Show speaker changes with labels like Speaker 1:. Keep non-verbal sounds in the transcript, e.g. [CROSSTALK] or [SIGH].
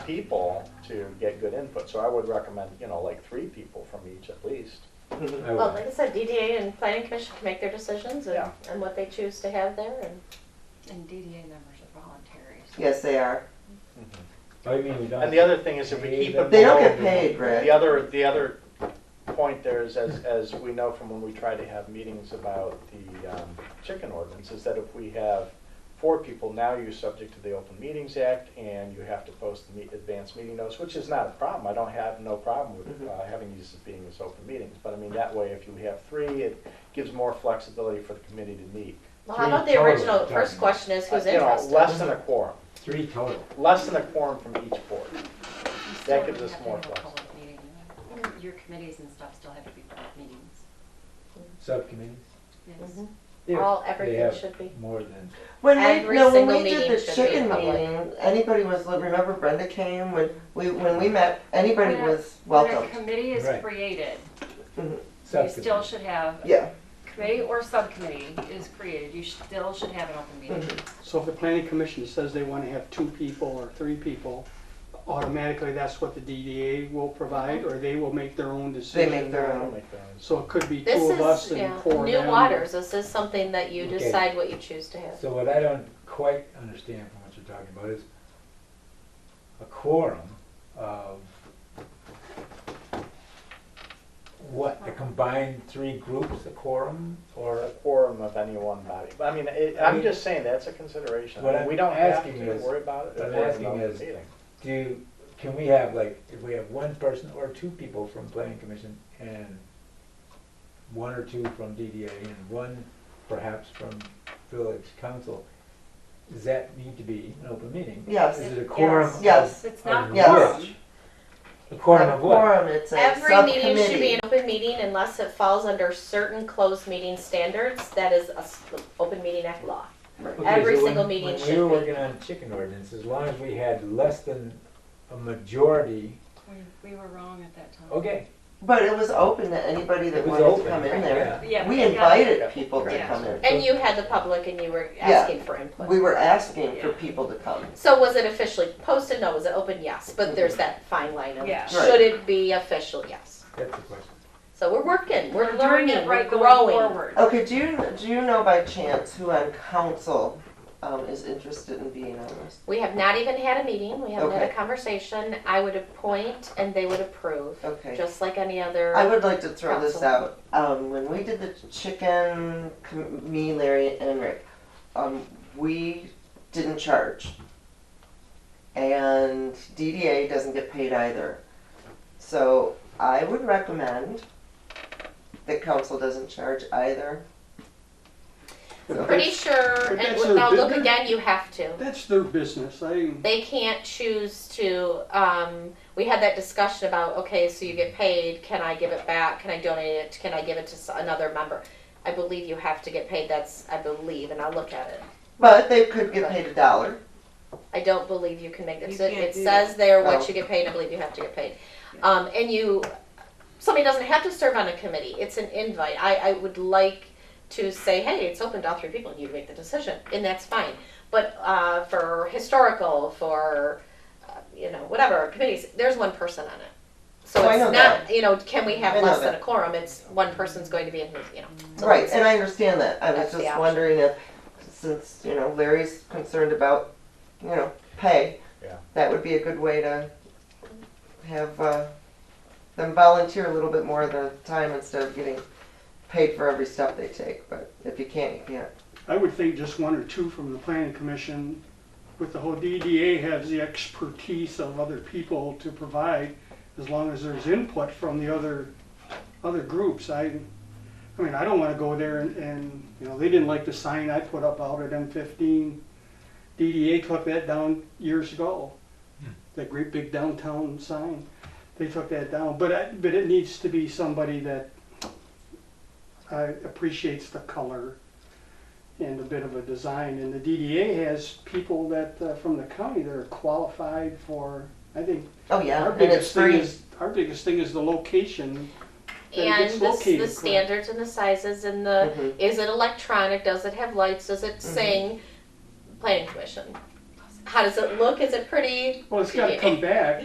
Speaker 1: people to get good input. So I would recommend, you know, like three people from each at least.
Speaker 2: I
Speaker 3: Well,
Speaker 2: would.
Speaker 3: like I said, DDA and planning commission can make their decisions and,
Speaker 1: Yeah.
Speaker 3: and what they choose to have there and.
Speaker 4: And DDA members are voluntary. so-
Speaker 5: [LAUGHS] Yes, they are.
Speaker 2: I mean, we don't.
Speaker 1: And the other thing is if we keep it.
Speaker 5: They don't
Speaker 1: below-
Speaker 5: get paid, Brett.
Speaker 1: The other, the other point there is, as, as we know from when we try to have meetings about the um, chicken ordinance, is that if we have four people, now you're subject to the Open Meetings Act and you have to post the meet, advance meeting notice, which is not a problem. I don't have, no problem
Speaker 5: Mm-hmm.
Speaker 1: with uh, having these as being as open meetings. But I mean, that way, if you have three, it gives more flexibility for the committee to meet.
Speaker 3: Well, how
Speaker 2: Three
Speaker 3: about the original,
Speaker 2: total,
Speaker 3: first
Speaker 2: John.
Speaker 3: question is who's
Speaker 1: Uh, you know, Less
Speaker 3: interested?
Speaker 1: than a quorum,
Speaker 2: Three total.
Speaker 1: less than a quorum from each board.
Speaker 4: You still
Speaker 1: gives us
Speaker 4: have to
Speaker 1: more
Speaker 4: have
Speaker 1: flexibility.
Speaker 4: a public meeting, you know? Your committees and stuff still have to be public meetings.
Speaker 2: Subcommittees.
Speaker 4: Yes.
Speaker 3: Mhm. All, everything
Speaker 2: have
Speaker 3: should be.
Speaker 2: More than.
Speaker 5: When
Speaker 3: Every
Speaker 5: we, no, when
Speaker 3: single
Speaker 5: we did
Speaker 3: meeting
Speaker 5: the
Speaker 3: should be
Speaker 5: chicken
Speaker 3: public.
Speaker 5: meeting, anybody was, remember Brenda came, when we, when we met, anybody
Speaker 4: When a-
Speaker 5: was
Speaker 4: When a
Speaker 5: welcome.
Speaker 4: committee is
Speaker 2: Right.
Speaker 4: created, you
Speaker 2: subcommittees.
Speaker 4: still should have,
Speaker 5: Yeah,
Speaker 4: committee or subcommittee is created, you still should have an open meeting.
Speaker 6: So if the planning commission says they want to have two people or three people, automatically that's what the DDA will provide, or they will make their own
Speaker 5: they
Speaker 6: decision?
Speaker 5: make their
Speaker 1: I don't
Speaker 5: own.
Speaker 1: make that.
Speaker 6: So it could be two of
Speaker 3: This
Speaker 6: us
Speaker 3: is, yeah,
Speaker 6: and four of
Speaker 3: new
Speaker 6: them.
Speaker 3: waters, this is something that you
Speaker 2: Okay.
Speaker 3: decide what you choose to have.
Speaker 2: So what I don't quite understand from what you're talking about is a quorum of what, the combined three groups, a quorum,
Speaker 1: or a
Speaker 2: or
Speaker 1: quorum of any one body. But I mean, it, I'm just saying, that's a consideration.
Speaker 2: What I'm
Speaker 1: We don't have
Speaker 2: asking
Speaker 1: to
Speaker 2: is-
Speaker 1: worry about it. if
Speaker 2: what I'm
Speaker 1: we're in an
Speaker 2: asking
Speaker 1: open
Speaker 2: is-
Speaker 1: meeting.
Speaker 2: do, can we have like, if we have one person or two people from planning commission and one or two from DDA and one perhaps from village council, does that need to be an open meeting?
Speaker 5: Yes.
Speaker 2: Is it a quorum?
Speaker 4: Yes.
Speaker 2: of-
Speaker 5: Yes.
Speaker 4: It's not
Speaker 2: of
Speaker 5: Yes.
Speaker 2: which?
Speaker 4: quorum.
Speaker 2: A quorum of what?
Speaker 5: Quorum, it's a
Speaker 3: Every meeting should be
Speaker 5: subcommittee.
Speaker 3: an open meeting unless it falls under certain closed meeting standards, that is a s- open meeting act law.
Speaker 2: Okay,
Speaker 3: Every
Speaker 2: so when-
Speaker 3: single meeting
Speaker 2: When
Speaker 3: should
Speaker 2: we were
Speaker 3: be.
Speaker 2: working on chicken ordinance, as long as we had less than a majority,
Speaker 4: We, we were wrong at that time.
Speaker 2: okay.
Speaker 5: But it was open to anybody
Speaker 2: It
Speaker 5: that
Speaker 2: was
Speaker 5: wanted
Speaker 2: open.
Speaker 5: to come in there.
Speaker 2: yeah.
Speaker 4: Yeah,
Speaker 5: We
Speaker 4: got it.
Speaker 5: invited people to
Speaker 4: Yeah.
Speaker 5: come in.
Speaker 3: And you had the public and you were
Speaker 5: Yeah.
Speaker 3: asking for input.
Speaker 5: We were asking for people to come.
Speaker 3: So was it officially posted? No. Was it open? Yes. But there's that fine line of
Speaker 4: Yeah.
Speaker 3: should it be official? Yes.
Speaker 2: That's the question.
Speaker 3: So we're working. We're,
Speaker 4: doing
Speaker 3: learning.
Speaker 4: it right
Speaker 3: we're
Speaker 4: going
Speaker 3: growing.
Speaker 4: forward.
Speaker 5: Okay, do you, do you know by chance who on council, um, is interested in being on this?
Speaker 3: We have not even had a meeting. We haven't had
Speaker 5: Okay.
Speaker 3: a conversation. I would appoint and they would approve,
Speaker 5: Okay.
Speaker 3: just like any other.
Speaker 5: I would like to throw this
Speaker 3: Council.
Speaker 5: out. Um, when we did the chicken, com- me, Larry, and Rick, um, we didn't charge. And DDA doesn't get paid either. So I would recommend that council doesn't charge either.
Speaker 6: But
Speaker 3: pretty
Speaker 6: that's-
Speaker 3: sure.
Speaker 6: but
Speaker 3: And
Speaker 6: that's their
Speaker 3: now look
Speaker 6: business.
Speaker 3: again. You have to.
Speaker 6: That's their business, I,
Speaker 3: They can't choose to. Um, we had that discussion about okay, so you get paid. Can I give it back? Can I donate it? Can I give it to s- another member? I believe you have to get paid. That's I believe, and I'll look at it.
Speaker 5: But they could get paid a dollar.
Speaker 3: I don't believe you can make that.
Speaker 4: You
Speaker 3: So
Speaker 4: can't
Speaker 3: It
Speaker 4: do
Speaker 3: says there
Speaker 5: Oh.
Speaker 3: what you get paid, I believe you have to get paid. Um, and you, somebody doesn't have to serve on a committee, it's an invite. I, I would like to say, hey, it's open to all three people, and you make the decision, and that's fine. But, uh, for historical, for, uh, you know, whatever, committees, there's one person on it. So
Speaker 5: Oh, I
Speaker 3: it's
Speaker 5: know
Speaker 3: not, you know, can we
Speaker 5: I
Speaker 3: have
Speaker 5: know
Speaker 3: less than a
Speaker 5: that.
Speaker 3: quorum, it's one person's going to be in, who's, you know. so
Speaker 5: Right,
Speaker 3: that's-
Speaker 5: and I understand that. I was
Speaker 3: That's the
Speaker 5: just
Speaker 3: option.
Speaker 5: wondering if, since, you know, Larry's concerned about, you know, pay.
Speaker 1: Yeah.
Speaker 5: That would be a good way to have, uh, them volunteer a little bit more of the time instead of getting paid for every step they take, but if you can't, you can't.
Speaker 6: I would think just one or two from the planning commission, with the whole DDA has the expertise of other people to provide, as long as there's input from the other, other groups, I, I mean, I don't wanna go there and, and, you know, they didn't like the sign I put up out at M fifteen. DDA took that down years ago, that great big downtown sign, they took that down, but I, but it needs to be somebody that uh, appreciates the color and a bit of a design. And the DDA has people that, uh, from the county that are qualified for, I think,
Speaker 5: Oh, yeah,
Speaker 6: our
Speaker 5: and it's
Speaker 6: biggest thing
Speaker 5: free.
Speaker 6: is, our biggest thing is the location. that it
Speaker 3: And
Speaker 6: gets
Speaker 3: the, s- the
Speaker 6: located, correct? Mm-hmm.
Speaker 3: standards and the sizes and the,
Speaker 5: Mhm.
Speaker 3: is it electronic, does it have lights, does it sing? Planning commission.
Speaker 7: how does it look? Is it pretty?
Speaker 3: Well, it's gotta come back.